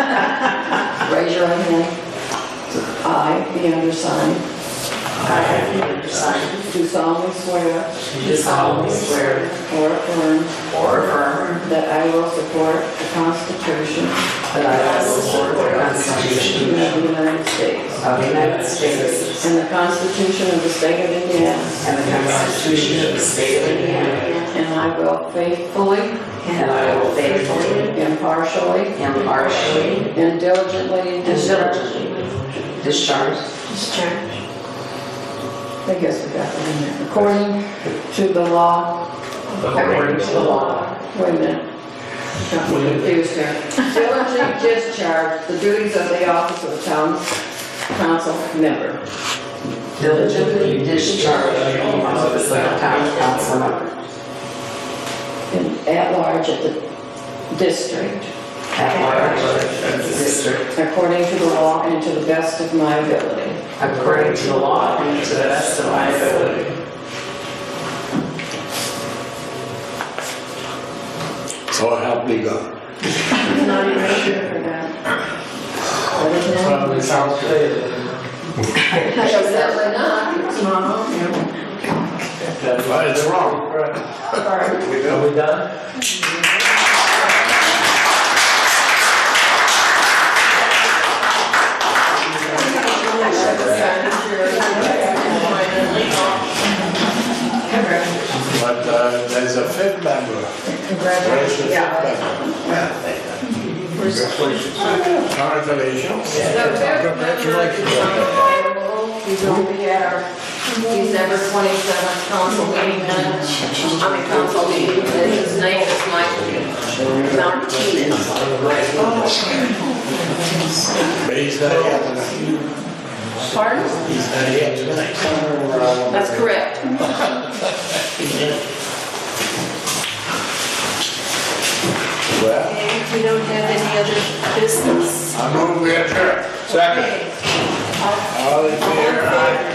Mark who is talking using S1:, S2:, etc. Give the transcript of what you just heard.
S1: Raise your right hand. I, the undersigned,
S2: I have the undersigned,
S1: do solemnly swear
S2: do solemnly swear
S1: or affirm
S2: or affirm
S1: that I will support the Constitution
S2: that I will support the Constitution
S1: of the United States
S2: of the United States
S1: and the Constitution of the State of Indiana,
S2: and the Constitution of the State of Indiana,
S1: and I will faithfully,
S2: and I will faithfully,
S1: impartially,
S2: impartially,
S1: and diligently
S2: and
S1: discharge.
S2: diligently discharge
S1: I guess we got that in there. According to the law,
S2: according to the law.
S1: Wait a minute. Got me confused here. Diligently discharge the duties of the office of town council member.
S2: Diligently discharge the office of town council member
S1: in- at large at the district,
S2: at large of the district
S1: according to the law and to the best of my ability.
S2: according to the law and to the best of my ability.
S3: So help me God.
S1: I'm not even sure for that. That is not-
S4: Probably sounds good.
S1: Definitely not. It's not on here.
S4: That's
S3: But it's wrong.
S4: right.
S1: Sorry.
S4: Are we done?
S3: But uh, there's a fifth member. Where's the fifth member? Congratulations.
S1: He's only at our
S5: December 27th council meeting minutes, I mean, council meeting, and his name is Mike Martinez.
S3: But he's not here tonight.
S5: Pardon?
S3: He's not here tonight.
S5: That's correct.
S3: Well,
S5: And we don't have any other business.
S3: I move we adjourn. Second.
S5: Okay.
S3: All in favor? Aye.